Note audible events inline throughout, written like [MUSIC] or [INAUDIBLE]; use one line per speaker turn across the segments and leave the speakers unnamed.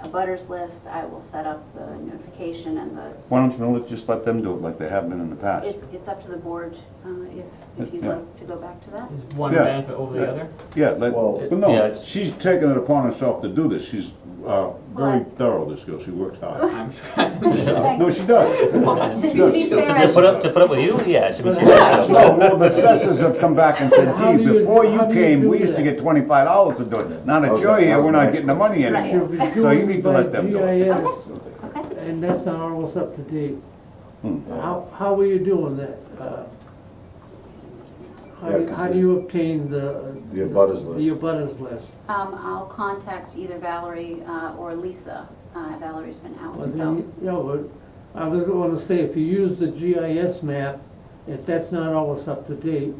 abutters list, I will set up the notification and
Why
the,
don't you let- just let them do it like they have been in the past?
It- it's up to the board uh, if, if you'd
Yeah.
like to go back to that.
Is one
Yeah.
benefit over the other?
Yeah, let,
Well-
but
Yeah,
no,
it's-
she's taken it upon herself to do this. She's uh, very
Well,
thorough, this girl. She works hard.
I'm sure.
No, she
[LAUGHS]
does.
[LAUGHS] To to be fair,
To
I-
put up, to put up with you, yeah, it should be.
So, well, the assessors have come back and said,
How
gee,
do you-
before you
how do you
came,
do
we used to
that?"
get twenty-five dollars to do it. Now that you're
Okay,
here, we're not
okay.
getting the money
Right.
anymore.
Should be
So you need to
doing
let them do it.
by GIS,
okay,
And that's not almost up to date.
Hmm.
How, how are you doing that? Uh, How,
Yeah,
do-
'cause
how
the-
do you obtain the?
the abutters list.
The abutters list.
um, I'll contact either Valerie uh, or Lisa. Uh, Valerie's been out,
Well, then,
so,
you know, but I was gonna say, if you use the GIS map, if that's not always up to date,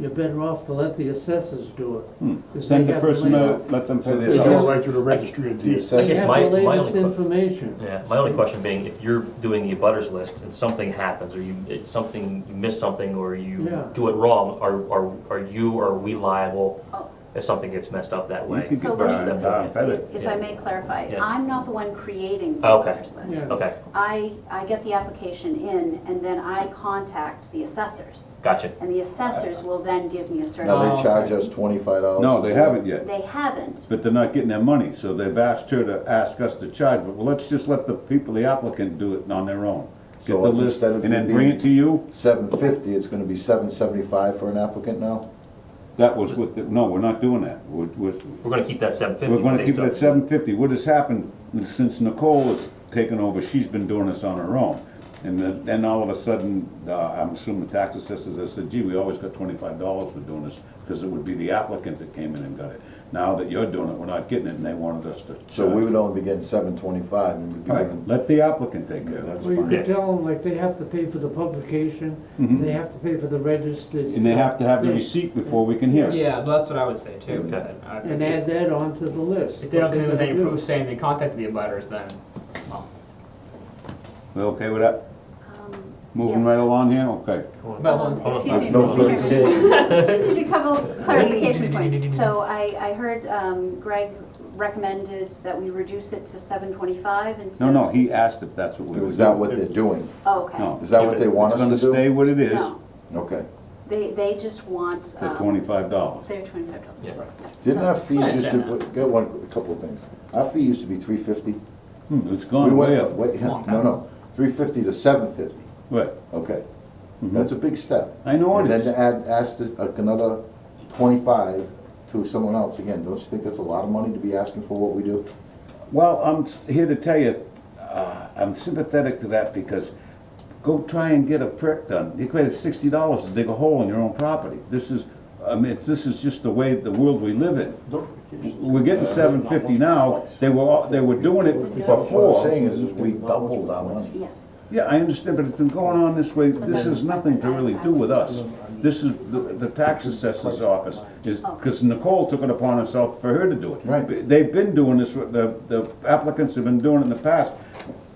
you're better off to let the assessors do it.
Hmm.
'cause they
Send the
have the
person to
layout.
let them
So
pay
the
They
this
assessor-
Go
out.
right to the registry of
The
deeds.
They
assessors,
have
my,
the
my only,
latest
que-
information.
yeah, my only question being, if you're doing the abutters list and something happens, or you, it's something, you miss something, or
Yeah.
you do it wrong, are, are, are you, or are we liable
oh,
if something gets messed up that
You
way?
can
So
get
let's-
versus them
burned down,
doing it?
feathered.
if I may clarify,
Yeah. Oh,
I'm not the one creating the
Okay.
abutters list.
Yeah.
Okay,
I, I get the application in, and then I contact the assessors,
gotcha.
and the
Uh,
assessors will then give me a
Now,
certificate.
they charge us twenty-five dollars.
No, they haven't yet.
They haven't,
But they're not getting their money, so they've asked her to ask us to charge, but well, let's just let the people, the applicant do it on their own. Get
So
the list
instead of
and then
it
bring
being-
it to you,
Seven fifty, it's gonna be seven seventy-five for an applicant now?
that was what, the- no, we're not doing that. We're, we're,
We're gonna keep that seven fifty.
we're gonna keep it at seven fifty. What has happened since Nicole has taken over, she's been doing this on her own. And then, then all of a sudden, uh, I'm assuming the tax assessors, they said, gee, we always got twenty-five dollars for doing this, because it would be the applicant that came in and got it. Now that you're doing it, we're not getting it, and they wanted us to
So we
charge.
would only be getting seven twenty-five and we'd be
All right,
giving,
let the applicant take care of it.
that's
Well, you
fine.
could tell them, like, they have to pay for the publication, they have to pay for the registered.
Mm-hmm. And they have to have the
Yeah.
receipt before we can hear it.
Yeah, well, that's what I would say too. is
Okay.
that I think
And add that onto the list.
If they don't come in with any
What they're
proof saying they contacted the abutters, then, well,
We okay with that?
um,
Moving
Yes.
right along here, okay.
about one.
Um, Excuse me,
No,
Mr.
it's
Chairman. [LAUGHS] Just need a couple clarification points. So I, I heard um, Greg recommended that we reduce it to seven twenty-five instead
No,
of.
no, he asked if that's what we were
Is that
doing.
what they're doing?
Oh, okay.
No.
Is that what they want
It's gonna
us to
stay
do?
what it is,
No,
Okay.
they, they just want.
the
um,
twenty-five dollars.
Their twenty-five dollars.
Yeah.
Didn't our fee
I
used to,
understand
got one, a couple of things. Our fee used to be three fifty.
Hmm, it's
We
gone
went
way
up.
up,
Long
No,
time.
no, three fifty to seven fifty,
right.
okay.
Mhm.
That's a big step.
I know it
And then
is.
to add, ask this- like, another twenty-five to someone else, again, don't you think that's a lot of money to be asking for what we do?
Well, I'm s- here to tell you, uh, I'm sympathetic to that because go try and get a prick done. You created sixty dollars to dig a hole in your own property. This is, I mean, it's- this is just the way, the world we live in. We're getting seven fifty now, they were, all- they were doing it
But what
before.
I'm saying is, is we doubled our money.
Yes.
Yeah, I understand, but it's been going on this way, this has nothing to really do with us. This is the, the tax assessor's office, is, because Nicole took it upon herself for her to do it.
Right.
They've been doing this, with- the, the applicants have been doing it in the past.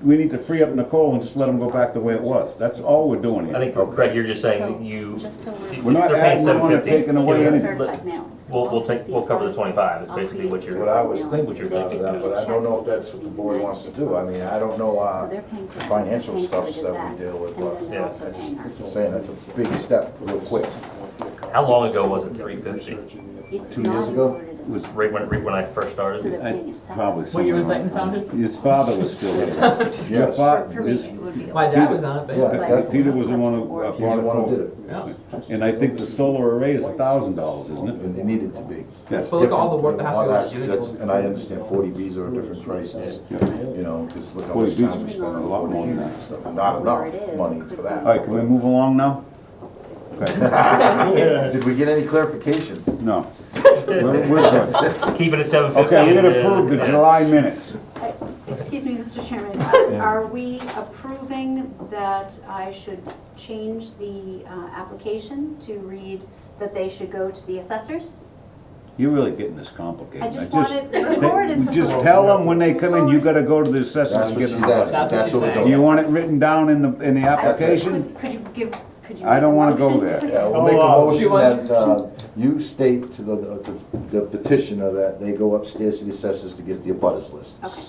We need to free up Nicole and just let them go back the way it was, that's all we're doing
I
here.
think, Greg, you're just saying
So,
that you,
just so we're-
We're not
they're paying
adding on
seven
or
fifty.
taking away
Yes,
anything.
sir. Certified mailing. So
We'll, we'll
I'll
take,
take
we'll cover the
the
twenty-five, is
I'll create
basically what
the
you're.
What I was
What you're
thinking out of
thinking.
that, but I don't know if that's what the board wants to do, I mean, I don't know,
So
uh,
they're paying for.
the financial
they're paying
stuff
for the
that we
Gazette,
deal with,
And then
but
they're
Yeah.
also paying our.
I'm saying that's a big step, real quick.
How long ago was it, three fifty?
It's
Two years
not
ago?
included in
Was right when, right when I first
So
started?
they're
I-
paying it separate.
Probably
What year was
somewhere
Layton
around
founded?
there. His father was still there. Your
Yes.
fa-
For me,
his-
it would be.
My dad was on it, but.
Yeah.
But-
Peter was the one who uh,
He's
He's
brought
the
it
one who did
forward.
it,
Yeah.
And I think the solar array is a thousand dollars, isn't it?
and it needed to be. That's
Well, look at all the
different
work
than
that has to
all
go into it.
that's- And I understand forty Bs are a different prices, you know, because look how much
40Bs
time
are
we spend
spending
on
a lot
forty
more than
Bs
that.
and stuff, and not enough money for that.
All right, can we move along now?
Did we get any clarification?
No. [LAUGHS] We're- we're good.
Keep it at seven fifty.
Okay, I'm gonna approve the July minutes.
Excuse me, Mr. Chairman, are- are we approving that I should change the uh, application to read that they should go to the assessors?
You're really getting this complicated.
I just want it recorded
they- Just
somewhere.
tell them when they come in, you gotta go to the assessors
That's
and
what
get
she's
them. Do
asking,
That's what
that's
she's
what we're
saying.
doing.
you want it written down in the, in the
I-
application?
Could could you give, could you?
I don't
make a
wanna go
motion,
there.
please?
Yeah, we'll
Oh,
make
uh,
she
a motion
wants-
that uh, you state to the- the the petitioner that they go upstairs to the assessors to get the abutters list.
Okay.